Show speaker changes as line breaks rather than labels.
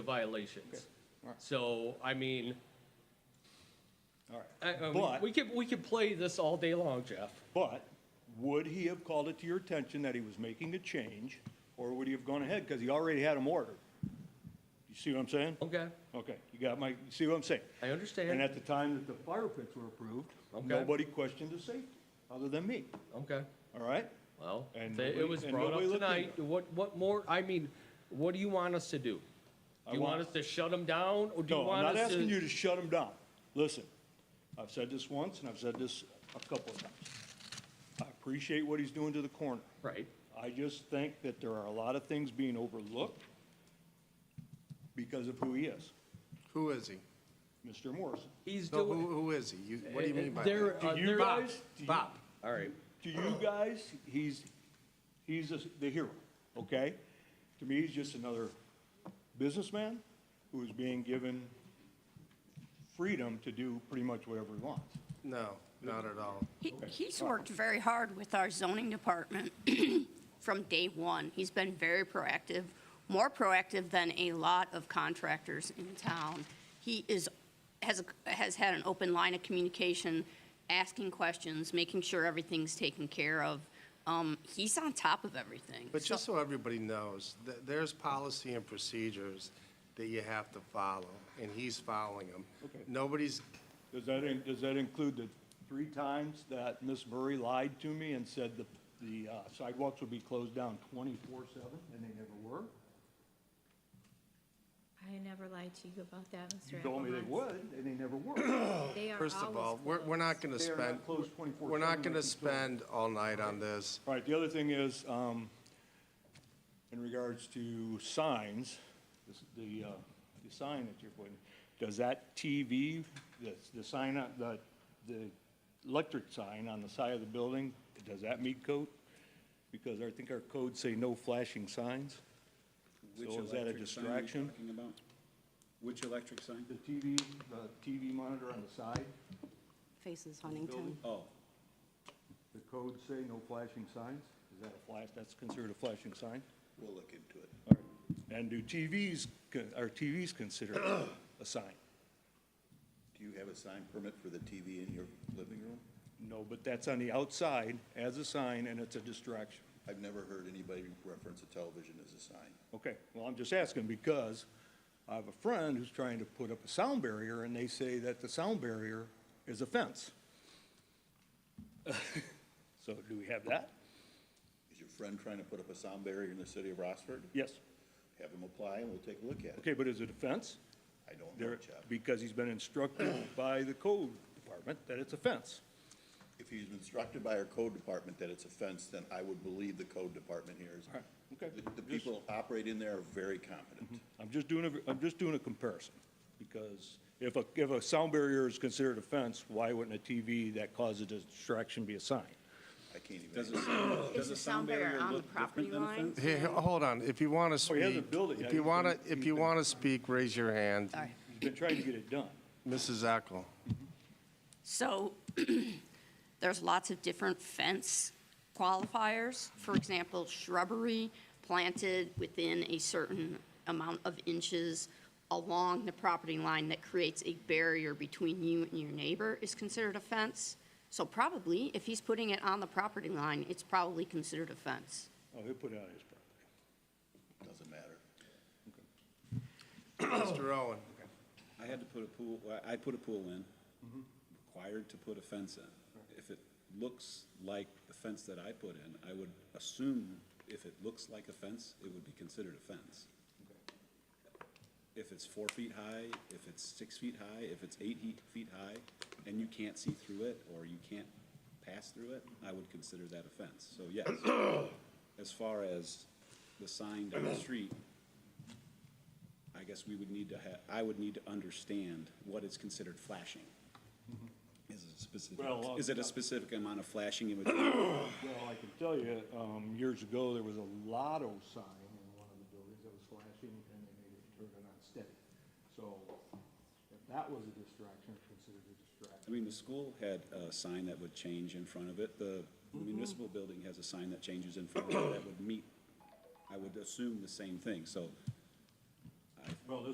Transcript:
violations.
alright.
So, I mean,
all
I- I
right.
mean,
But,
we could, we could play this all day long, Jeff.
but would he have called it to your attention that he was making a change? Or would he have gone ahead? Because he already had them ordered. You see what I'm saying?
Okay,
Okay, you got my, you see what I'm saying?
I
And
understand.
at the time that the fire pits were approved,
Okay.
nobody questioned the safety, other than me,
Okay,
all right?
well, if
And
it
nobody-
was
and
brought up
nobody looked
tonight.
into
What, what more, I mean, what do you want us to do?
I
Do you want
want-
us to shut them down or do you
No, I'm
want
not
us
asking you
to?
to shut them down. Listen, I've said this once, and I've said this a couple of times. I appreciate what he's doing to the corner.
Right,
I just think that there are a lot of things being overlooked because of who he is,
Who is he?
Mr. Morrison.
he's
No,
doing.
who, who is he? You, what do you mean by
They're-
that?
uh,
Do you
they're-
guys- do you-
Bob,
All right,
To you guys, he's, he's a- the hero, okay? To me, he's just another businessman who is being given freedom to do pretty much whatever he wants.
no, not at all.
He- He's worked very hard with our zoning department from day one. He's been very proactive, more proactive than a lot of contractors in town. He is, has, a- has had an open line of communication, asking questions, making sure everything's taken care of. Um, He's on top of everything.
But
So-
just so everybody knows, th- there's policy and procedures that you have to follow, and he's following them.
Okay.
Nobody's,
Does that, in- does that include the three times that Ms. Murray lied to me and said the, the uh, sidewalks would be closed down twenty-four seven, and they never were?
I never lied to you about that, Mr.
You told me they
Applebaum.
would, and they never were.
They are
first of
always
all, we're, we're not gonna
They are
spend,
not closed twenty-four seven.
we're not gonna spend all night on this.
All right, the other thing is, um, in regards to signs, this- the, uh, the sign that you're putting, does that TV, the, the sign, on- the, the electric sign on the side of the building, does that meet code? Because I think our codes say no flashing signs. So is that a
electric sign are you
distraction?
talking about? Which electric sign?
The TV, the TV monitor on the side,
Faces Huntington.
Oh,
the codes say no flashing signs? Is that a flash, that's considered a flashing sign?
we'll look into it.
And do TVs, con- are TVs considered a sign?
Do you have a sign permit for the TV in your living room?
No, but that's on the outside as a sign, and it's a distraction.
I've never heard anybody reference a television as a sign.
Okay, well, I'm just asking because I have a friend who's trying to put up a sound barrier, and they say that the sound barrier is a fence. So do we have that?
Is your friend trying to put up a sound barrier in the city of Rossford?
Yes.
Have him apply and we'll take a look at it.
Okay, but is it a fence?
I don't know,
There,
Jeff.
because he's been instructed by the code department that it's a fence.
If he's been instructed by our code department that it's a fence, then I would believe the code department here is.
right, okay.
The- The
Just- Mm-hmm.
people who operate in there are very competent.
I'm just doing, a am just doing a comparison, because if a, if a sound barrier is considered a fence, why wouldn't a TV that causes a distraction be a sign?
I can't even.
Is the sound barrier on the property line?
Here, here, hold on, if you wanna
Oh, he
speak,
hasn't built it yet.
if you
He's
wanna,
been-
if
he's
you
been-
wanna speak, raise your hand.
Sorry.
He's been trying to get it done.
Mrs. Eckel.
So there's lots of different fence qualifiers. For example, shrubbery planted within a certain amount of inches along the property line that creates a barrier between you and your neighbor is considered a fence. So probably, if he's putting it on the property line, it's probably considered a fence.
Oh, he'll put it on his property.
Doesn't matter.
Mr. Owen.
I had to put a pool, I- I put a pool in,
Mm-hmm.
required to put a fence in. If it looks like the fence that I put in, I would assume if it looks like a fence, it would be considered a fence. If it's four feet high, if it's six feet high, if it's eight he- feet high, and you can't see through it, or you can't pass through it, I would consider that a fence. So yes, as far as the sign down the street, I guess we would need to have, I would need to understand what is considered flashing. Is it specific,
Well, uh,
is it a specific amount of flashing in which,
Well, I can tell you, um, years ago, there was a lotto sign in one of the buildings that was flashing, and they made it turn it on steady. So if that was a distraction, it's considered a
I
distraction.
mean, the school had a sign that would change in front of it. The municipal building has a sign that changes in front of it that would meet, I would assume the same thing, so.
Well,